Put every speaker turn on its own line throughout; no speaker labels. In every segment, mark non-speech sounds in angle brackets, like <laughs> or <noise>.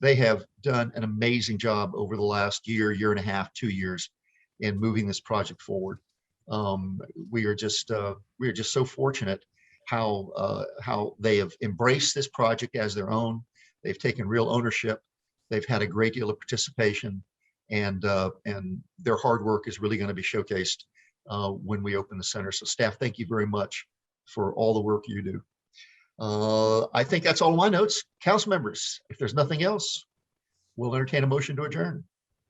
they have done an amazing job over the last year, year and a half, two years in moving this project forward. Um, we are just, uh, we are just so fortunate how, uh, how they have embraced this project as their own. They've taken real ownership. They've had a great deal of participation and, uh, and their hard work is really going to be showcased, uh, when we open the center. So staff, thank you very much for all the work you do. Uh, I think that's all my notes. Council members, if there's nothing else, we'll entertain a motion to adjourn.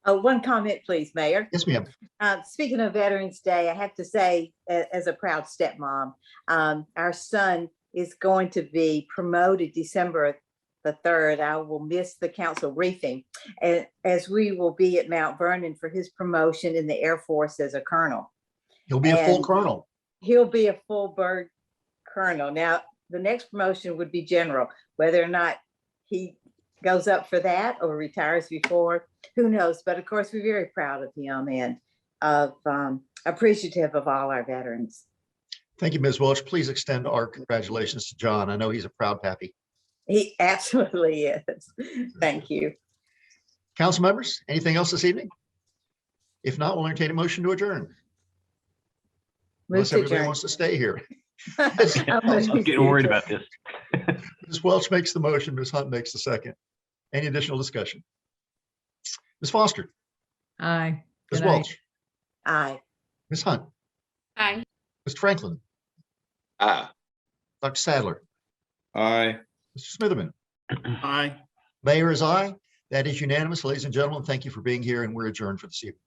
Oh, one comment, please, Mayor.
Yes, ma'am.
Uh, speaking of Veterans Day, I have to say, a- as a proud stepmom, um, our son is going to be promoted December the third. I will miss the council briefing. And as we will be at Mount Vernon for his promotion in the Air Force as a colonel.
He'll be a full
And-
colonel.
he'll be a full bird colonel. Now, the next promotion would be general, whether or not he goes up for that or retires before, who knows? But of course, we're very proud of him and of um, appreciative of all our veterans.
Thank you, Ms. Welch. Please extend our congratulations to John. I know he's a proud pappy.
He <laughs> absolutely is. Thank you.
Council members, anything else this evening? If not, we'll entertain a motion to adjourn.
Move
Unless
to
everybody
adjourn. <laughs>
wants to stay here.
I'm <laughs>
I'm getting worried about this.
Ms. Welch makes the motion, Ms. Hunt makes the second. Any additional discussion? Ms. Foster,
Aye.
Ms.
Good night.
Welch,
Aye.
Ms. Hunt,
Aye.
Mr. Franklin,
Aye.
Dr. Sadler,
Aye.
Mr. Smitherman.
Aye.
Mayor is aye. That is unanimous. Ladies and gentlemen, thank you for being here and we're adjourned for this evening.